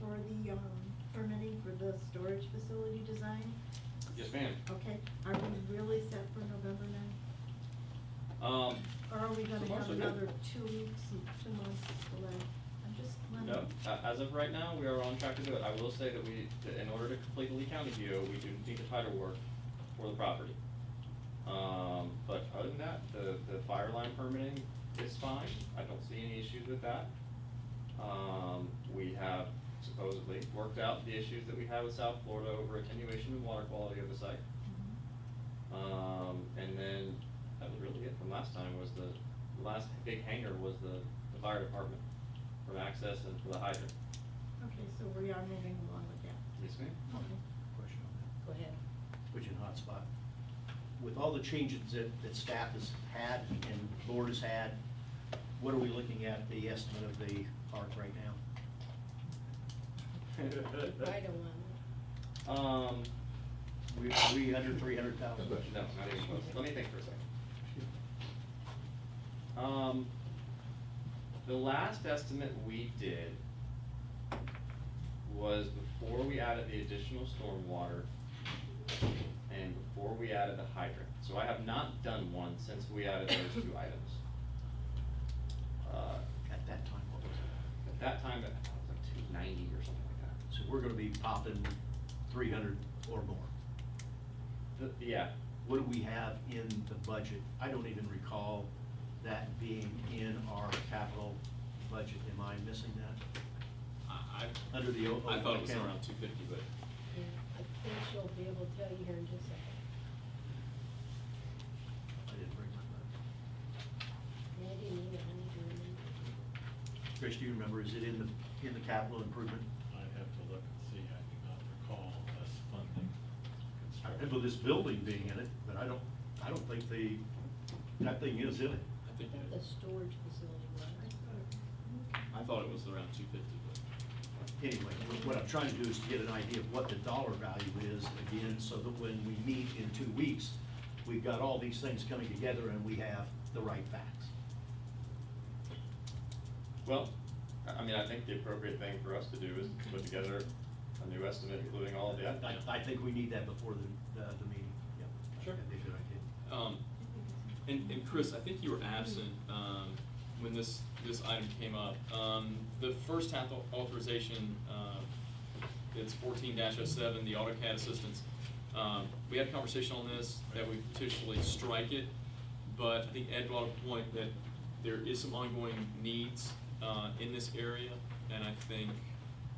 the, um, permitting for the storage facility design? Yes, ma'am. Okay, are we really set for November now? Um, Or are we gonna Two months have ago. another two weeks, and two months delay? I'm just no, wondering. a- as of right now, we are on track to do it. I will say that we, that in order to complete the Lee County deal, we do need the title work for the property. Um, but other than that, the, the fire line permitting is fine. I don't see any issues with that. Um, we have supposedly worked out the issues that we had with South Florida over attenuation and water quality of the site. Mm-hmm. Um, and then that was really it from last time was the, the last big hanger was the, the fire department from access and for the hydrant. Okay, so we are moving along with that. Yes, ma'am? Okay. Question on Go ahead. that, put you in a hot spot. With all the changes that, that staff has had and the board has had, what are we looking at the estimate of the park right now? I don't want. Um, We, are we under three hundred thousand? no, not even close. Let me think for a second. Um, the last estimate we did was before we added the additional stormwater and before we added the hydrant. So I have not done one since we added those two items. Uh, At that time, what was it? At that time, it was like two ninety or something like that. So we're gonna be popping three hundred or more. The- Yeah, What do we have in the budget? I don't even recall that being in our capital budget. Am I missing that? I, I- Under the o- I thought it was account. around two fifty, but Yeah, I think she'll be able to tell you here in just a second. I didn't bring my budget. Yeah, I didn't either, I need to remember. Chris, do you remember, is it in the, in the capital improvement? I'd have to look and see, I do not recall us funding I construction. remember this building being in it, but I don't, I don't think the, that thing is in it. I I think, think the it- storage facility was. I thought it was around two fifty, but Anyway, what- what I'm trying to do is to get an idea of what the dollar value is again, so that when we meet in two weeks, we've got all these things coming together and we have the right facts. Well, I I mean, I think the appropriate thing for us to do is to put together a new estimate, including all of the I, items. I think we need that before the, the, the meeting, yep. Sure. That'd be a good idea. Um, and, and Chris, I think you were absent, um, when this, this item came up. Um, the first half au- authorization, uh, it's fourteen 7 the AutoCAD assistance. Um, we had a conversation on this, that we potentially strike it, but I think Ed brought up a point that there is some ongoing needs, uh, in this area, and I think,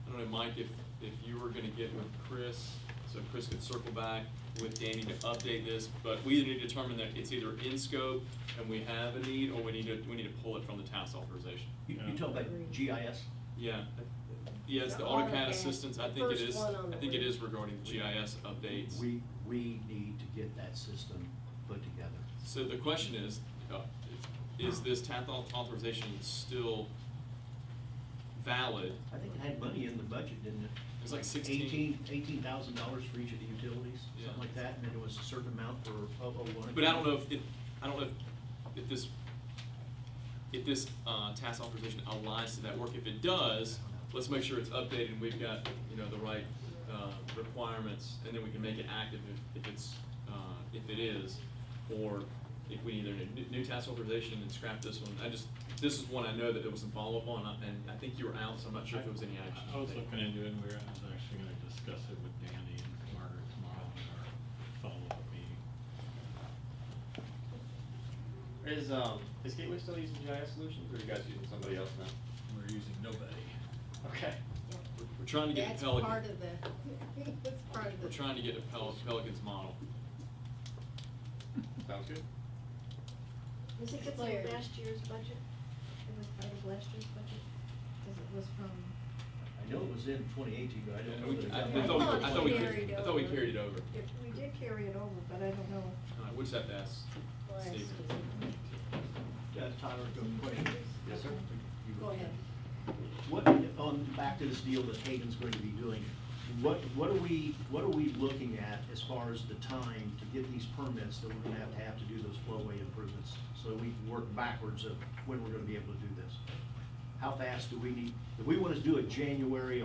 I don't know, Mike, if, if you were gonna get with Chris, so Chris could circle back with Danny to update this, but we need to determine that it's either in scope and we have a need, or we need to, we need to pull it from the task authorization. You, you talking about GIS? Yeah, yeah, it's the The AutoCAD, AutoCAD assistance, I the think it first is, one on I the think it list. is regarding GIS updates. We, we need to get that system put together. So the question is, uh, is this TAP au- authorization still valid? I think it had money in the budget, didn't it? It was like 16. Eighteen thousand dollars for each of the utilities, Yeah. something like that, and then it was a certain amount for O O one. But I don't know if, if- I don't know if- if this, if this uh, task authorization aligns to that work. If it does, let's make sure it's updated and we've got, you know, the right uh, requirements, and then we can make it active if- if it's, uh, if it is, or if we either need new- new task authorization and scrap this one. I just, this is one I know that it was some follow-up on, uh, and I think you were out, so I'm not sure if it was any action. I I was looking into it, and we were, I was actually gonna discuss it with Danny and Margaret tomorrow in our follow-up meeting. Is, um, is Gateway still using GIS solutions, or are you guys using somebody else now? We're using nobody. Okay. We're- We're trying to get That's to Pelican. part of the, that's part of the. We're trying to get to Pel- Pelican's model. Sounds good? Was it just Declared. last year's budget? It was part of last year's budget? Because it was from, I know it was in twenty eighteen, but I don't Yeah, know. we- that it I- I got thought we- back to I thought we 2018. carried- I thought we carried it over. if we did carry it over, but I don't know. Uh, we just have to ask Well, Steve. it's- Uh, Tyler, go question. Yes, sir. You Go ahead. What, on, back to this deal that Hayden's going to be doing, what, what are we, what are we looking at as far as the time to get these permits that we're gonna have to have to do those flowway improvements? So that we can work backwards of when we're gonna be able to do this. How fast do we need, if we wanna do it January